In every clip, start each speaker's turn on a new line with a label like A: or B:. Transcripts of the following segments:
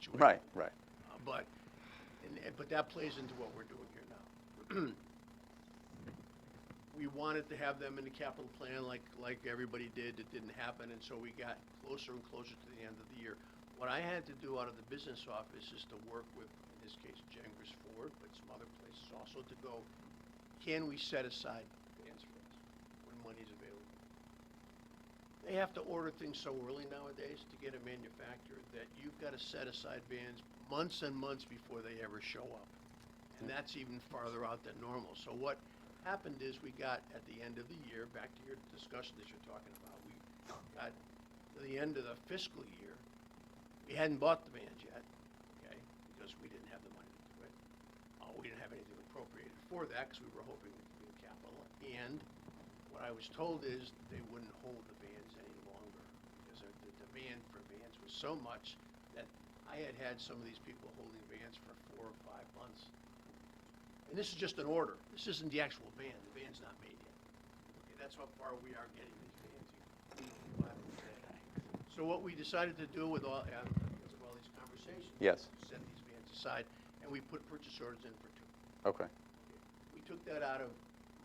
A: situation.
B: Right, right.
A: Uh, But, and, and- but that plays into what we're doing here now. We wanted to have them in the capital plan like, like everybody did, it didn't happen, and so we got closer and closer to the end of the year. What I had to do out of the business office is to work with, in this case, Jengris Ford, but some other places also, to go, can we set aside grants for us when money's available? They have to order things so early nowadays to get them manufactured that you've got to set aside vans months and months before they ever show up. And that's even farther out than normal. So what happened is we got at the end of the year, back to your discussion that you're talking about, we got to the end of the fiscal year. We hadn't bought the vans yet, okay, because we didn't have the money to do it. Uh, we didn't have anything appropriated for that because we were hoping it would be in capital. And what I was told is they wouldn't hold the vans any longer because the the demand for vans was so much that I had had some of these people holding vans for four or five months. And this is just an order. This isn't the actual van. The van's not made yet. Okay, that's how far we are getting these vans. You buy them today. So what we decided to do with all, uh, because of all these conversations.
B: Yes.
A: was Set these vans aside and we put purchase orders in for two.
B: Okay,
A: We took that out of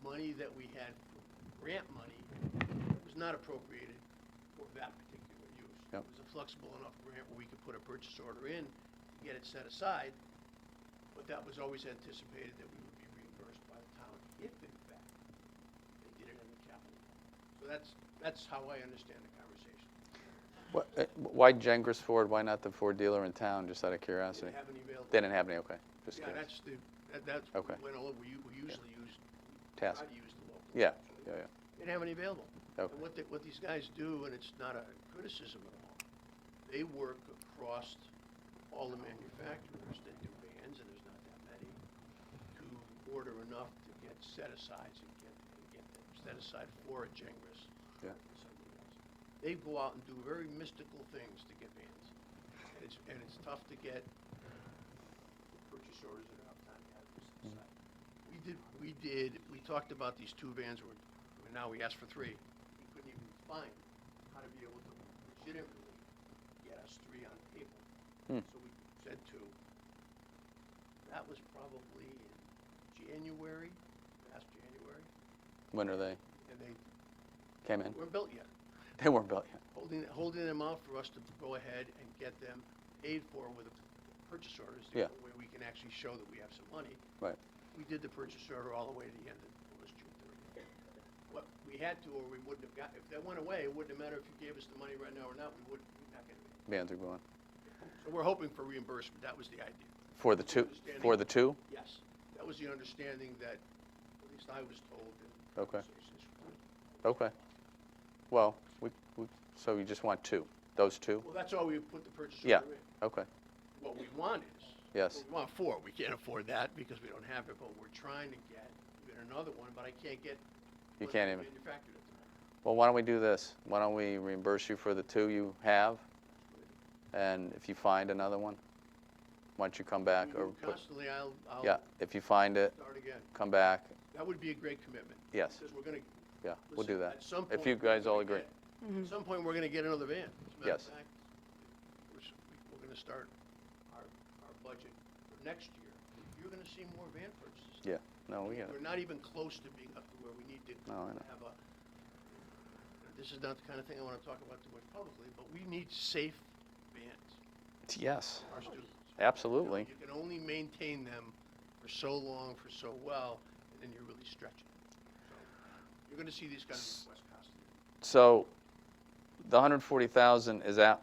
A: money that we had, for grant money, that was not appropriated for that particular use.
B: Yep.
A: It was a flexible enough grant where we could put a purchase order in, get it set aside, but that was always anticipated that we would be reimbursed by the town if in fact they did it in the capital. So that's, that's how I understand the conversation.
B: Wha- uh, Why Jengris Ford, why not the Ford dealer in town, just out of
A: Didn't
B: curiosity?
A: have any available.
B: They didn't have any, okay, just
A: Yeah,
B: curious.
A: that's the, that- that's,
B: Okay.
A: when all, we u- we usually use, we try
B: Task.
A: to use the local.
B: Yeah,
A: option.
B: yeah, yeah.
A: They didn't have any available.
B: Okay.
A: And what they, what these guys do, and it's not a criticism at all, they work across all the manufacturers that do vans, and there's not that many, to order enough to get set asides and get, and get them set aside for a Jengris.
B: Yeah.
A: or something else. They go out and do very mystical things to get vans. And it's, and it's tough to get purchase orders that are up time to have this
B: Mm-hmm.
A: aside. We did, we did, we talked about these two vans, were, and now we asked for three. We couldn't even find how to be able to legitimately get us three on paper.
B: Hmm.
A: So we said two. That was probably in January, last January,
B: When are they,
A: and they
B: came in?
A: weren't built yet.
B: They weren't built yet.
A: Holding, holding them out for us to go ahead and get them paid for with a purchase orders. the
B: Yeah.
A: only way we can actually show that we have some money.
B: Right,
A: We did the purchase order all the way to the end of, it was June thirtieth. What, we had to, or we wouldn't have got, if that went away, it wouldn't have mattered if you gave us the money right now or not, we wouldn't, we're not gonna make
B: vans are going.
A: it. So we're hoping for reimbursement, that was the idea.
B: For the two,
A: Understanding.
B: for the two?
A: Yes, that was the understanding that, at least I was told in
B: Okay.
A: conversations with
B: Okay. Well, we, we- so you just want two, those two?
A: Well, that's all we put the purchase
B: Yeah,
A: order in.
B: okay,
A: What we want is.
B: Yes.
A: We want four, we can't afford that because we don't have it, but we're trying to get, get another one, but I can't get.
B: you
A: one
B: can't
A: that's
B: even.
A: Manufactured at the moment.
B: Well, why don't we do this? Why don't we reimburse you for the two you have? And if you find another one, why don't you come back
A: We
B: or
A: do
B: put,
A: Constantly, I'll, I'll.
B: yeah, if you find it,
A: Start again.
B: come back.
A: That would be a great commitment.
B: Yes.
A: Because we're gonna.
B: Yeah, we'll
A: listen,
B: do that.
A: At some point.
B: If you
A: we're
B: guys all
A: gonna
B: agree.
A: get- At some point, we're gonna get another van. As a matter of
B: Yes.
A: fact, We're, s- we're gonna start our, our budget for next year. You're gonna see more van purchases.
B: Oh, Yeah, no, we got
A: We're
B: it.
A: not even close to being up to where we need to
B: No, I know.
A: have a, this is not the kind of thing I want to talk about too much publicly, but we need safe vans
B: Yes,
A: for our students. You know,
B: absolutely.
A: You can only maintain them for so long, for so well, and then you're really stretching. So You're going to see these kind of requests constantly.
B: So the hundred forty thousand, is that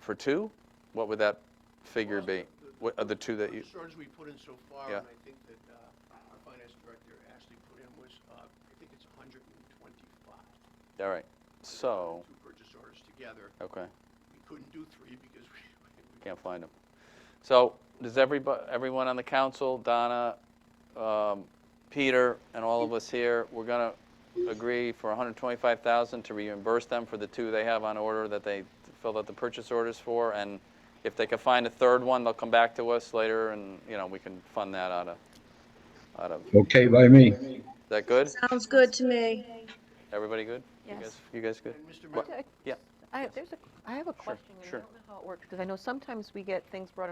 B: for two? What would that figure
A: Well,
B: be?
A: the-
B: What are the two that you,
A: The shortage we put in so far,
B: Yeah.
A: and I think that uh, our finance director Ashley put in was, uh, I think it's 125.
B: all right, so,
A: Two purchase orders together.
B: okay.
A: we couldn't do three because we, we-
B: Can't find them. So, does everybody, everyone on the council, Donna, um, Peter, and all of us here, we're gonna agree for 125,000 to reimburse them for the two they have on order that they filled out the purchase orders for, and if they can find a third one, they'll come back to us later, and, you know, we can fund that out of, out of, is
C: Okay by me.
B: that good?
D: Sounds good to me.
B: Everybody good? You
E: Yes.
B: guys- You guys good?
A: and Mr.
B: What-
A: Mayor,
B: Yeah.
E: I, there's a, I have a question, and I
B: sure.
E: don't know how it works, because I know sometimes we get things brought